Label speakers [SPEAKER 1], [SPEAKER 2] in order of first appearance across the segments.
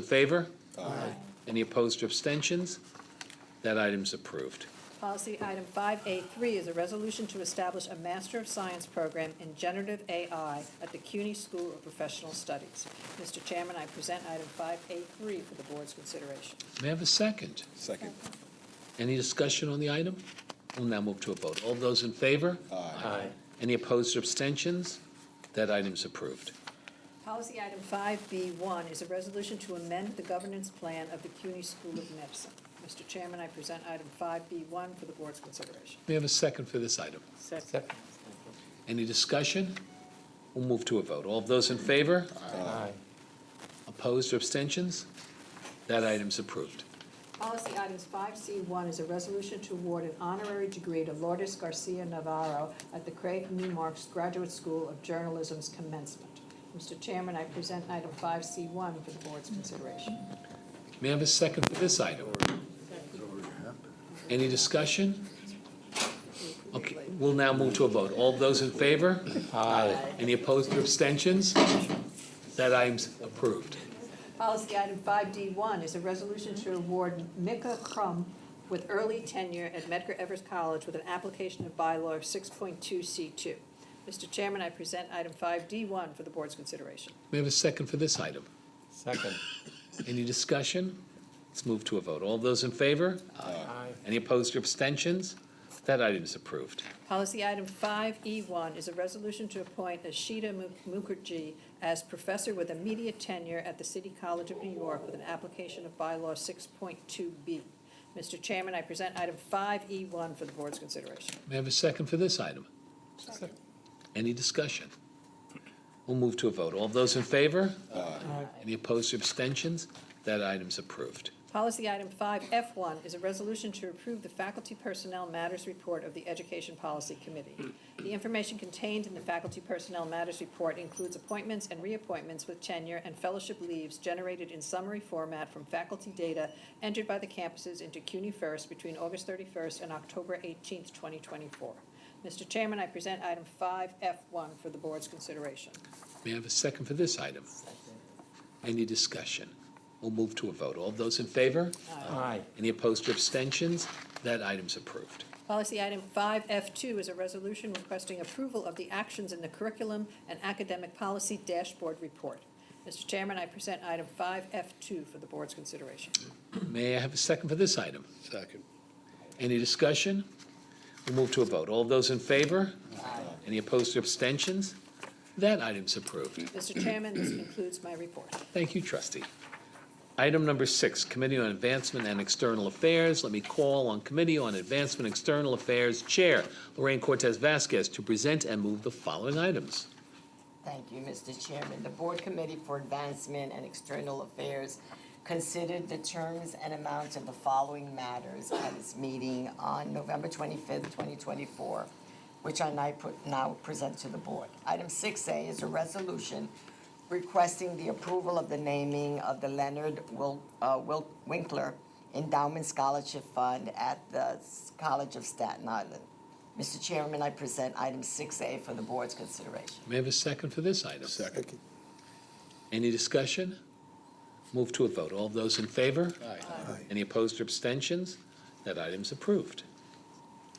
[SPEAKER 1] In favor? Aye. Any opposed or abstentions? That item's approved.
[SPEAKER 2] Policy item 5A3 is a resolution to establish a Master of Science program in generative AI at the CUNY School of Professional Studies. Mr. Chairman, I present item 5A3 for the board's consideration.
[SPEAKER 1] May I have a second?
[SPEAKER 3] Second.
[SPEAKER 1] Any discussion on the item? We'll now move to a vote. All those in favor? Aye. Any opposed or abstentions? That item's approved.
[SPEAKER 2] Policy item 5B1 is a resolution to amend the governance plan of the CUNY School of Medicine. Mr. Chairman, I present item 5B1 for the board's consideration.
[SPEAKER 1] May I have a second for this item?
[SPEAKER 2] Second.
[SPEAKER 1] Any discussion? We'll move to a vote. All those in favor?
[SPEAKER 3] Aye.
[SPEAKER 1] Opposed or abstentions? That item's approved.
[SPEAKER 2] Policy items 5C1 is a resolution to award an honorary degree to Lourdes Garcia Navarro at the Craig Newmark's Graduate School of Journalism's commencement. Mr. Chairman, I present item 5C1 for the board's consideration.
[SPEAKER 1] May I have a second for this item? Any discussion? Okay, we'll now move to a vote. All those in favor? Aye. Any opposed or abstentions? That item's approved.
[SPEAKER 2] Policy item 5D1 is a resolution to award Mika Crum with early tenure at Medgar Evers College with an application of bylaw 6.2C2. Mr. Chairman, I present item 5D1 for the board's consideration.
[SPEAKER 1] May I have a second for this item?
[SPEAKER 4] Second.
[SPEAKER 1] Any discussion? Let's move to a vote. All those in favor?
[SPEAKER 4] Aye.
[SPEAKER 1] Any opposed or abstentions? That item is approved.
[SPEAKER 2] Policy item 5E1 is a resolution to appoint Ashita Mu- Mukherjee as professor with immediate tenure at the City College of New York with an application of bylaw 6.2B. Mr. Chairman, I present item 5E1 for the board's consideration.
[SPEAKER 1] May I have a second for this item? Any discussion? We'll move to a vote. All those in favor? Aye. Any opposed or abstentions? That item's approved.
[SPEAKER 2] Policy item 5F1 is a resolution to approve the Faculty Personnel Matters Report of the Education Policy Committee. The information contained in the Faculty Personnel Matters Report includes appointments and reappointments with tenure and fellowship leaves generated in summary format from faculty data entered by the campuses into CUNY First between August 31st and October 18th, 2024. Mr. Chairman, I present item 5F1 for the board's consideration.
[SPEAKER 1] May I have a second for this item? Any discussion? We'll move to a vote. All those in favor?
[SPEAKER 4] Aye.
[SPEAKER 1] Any opposed or abstentions? That item's approved.
[SPEAKER 2] Policy item 5F2 is a resolution requesting approval of the actions in the curriculum and academic policy dashboard report. Mr. Chairman, I present item 5F2 for the board's consideration.
[SPEAKER 1] May I have a second for this item? Second. Any discussion? We'll move to a vote. All those in favor? Any opposed or abstentions? That item's approved.
[SPEAKER 2] Mr. Chairman, this concludes my report.
[SPEAKER 1] Thank you, trustee. Item number six, Committee on Advancement and External Affairs. Let me call on Committee on Advancement and External Affairs Chair Lorraine Cortez Vasquez to present and move the following items.
[SPEAKER 5] Thank you, Mr. Chairman. The Board Committee for Advancement and External Affairs considered the terms and amounts of the following matters at its meeting on November twenty-fifth, twenty twenty-four, which I now put- now present to the Board. Item six A is a resolution requesting the approval of the naming of the Leonard Wil- uh, Wil- Winkler Endowment Scholarship Fund at the S- College of Staten Island. Mr. Chairman, I present item six A for the Board's consideration.
[SPEAKER 1] May I have a second for this item? Any discussion? Move to a vote. All those in favor? Aye. Any opposed or abstentions? That item's approved.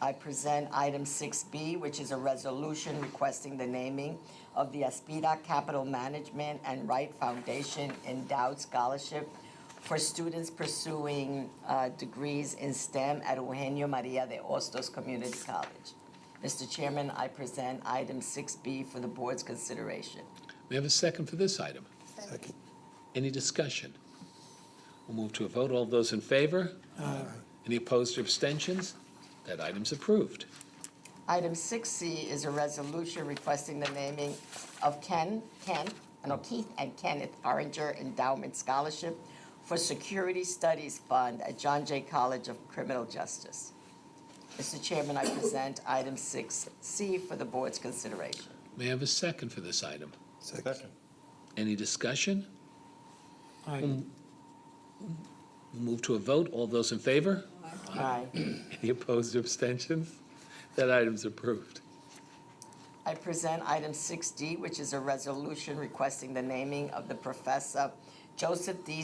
[SPEAKER 5] I present item six B, which is a resolution requesting the naming of the Aspida Capital Management and Wright Foundation Endowed Scholarship for students pursuing uh, degrees in STEM at Eugenio Maria de Ostos Community College. Mr. Chairman, I present item six B for the board's consideration.
[SPEAKER 1] May I have a second for this item?
[SPEAKER 3] Second.
[SPEAKER 1] Any discussion? We'll move to a vote. All those in favor? Aye. Any opposed or abstentions? That item's approved.
[SPEAKER 5] Item six C is a resolution requesting the naming of Ken, Ken, no, Keith and Kenneth Oringer Endowment Scholarship for Security Studies Fund at John Jay College of Criminal Justice. Mr. Chairman, I present item six C for the board's consideration.
[SPEAKER 1] May I have a second for this item?
[SPEAKER 3] Second.
[SPEAKER 1] Any discussion?
[SPEAKER 4] Aye.
[SPEAKER 1] We'll Move to a vote. All those in favor?
[SPEAKER 5] Aye.
[SPEAKER 1] Any opposed or abstentions? That item's approved.
[SPEAKER 5] I present item six D, which is a resolution requesting the naming of the Professor Joseph D.